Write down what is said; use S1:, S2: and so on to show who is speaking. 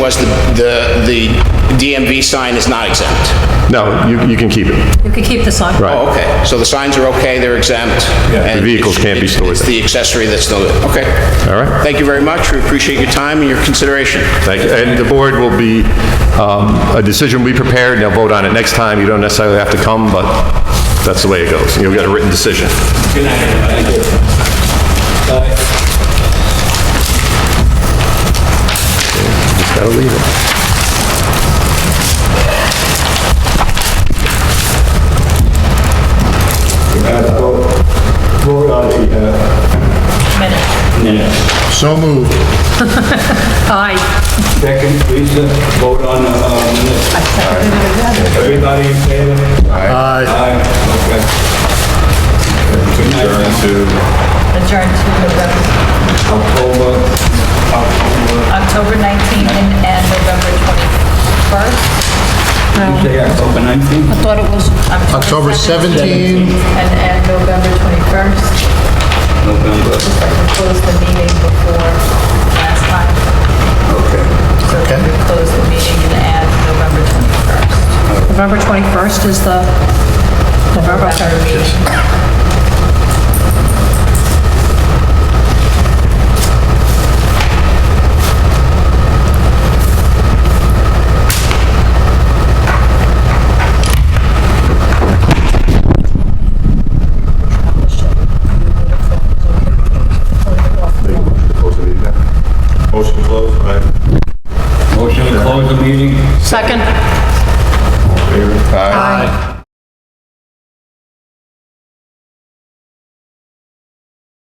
S1: was the, the the DMV sign is not exempt.
S2: No, you, you can keep it.
S3: You could keep this on.
S2: Right.
S1: Oh, okay. So the signs are okay, they're exempt? and
S2: The vehicles can't be stored
S1: It's
S2: there.
S1: the accessory that's still, okay.
S2: All right.
S1: Thank you very much. We appreciate your time and your consideration.
S2: Thank you. And the board will be, um, a decision will be prepared, and they'll vote on it next time. You don't necessarily have to come, but that's the way it goes. You'll get a written decision. Just gotta leave it.
S4: Vote on the, uh,
S3: Minute.
S5: So moved.
S3: Aye.
S4: second, please, uh, vote on, uh, minutes. Everybody in favor?
S5: Aye.
S4: Aye, okay. Good night.
S3: Adjourn to November-
S4: October, October,
S3: October 19th and and November 21st.
S4: you say October 19th?
S3: Thought it was.
S5: October 17.
S3: And, and November 21st.
S4: November.
S3: We closed the meeting before last time. So
S5: Okay.
S3: we closed the meeting and add November 21st. November 21st is the November meeting.
S2: Motion closed, aye.
S4: Motion to close the meeting?
S3: Second.
S2: Aye.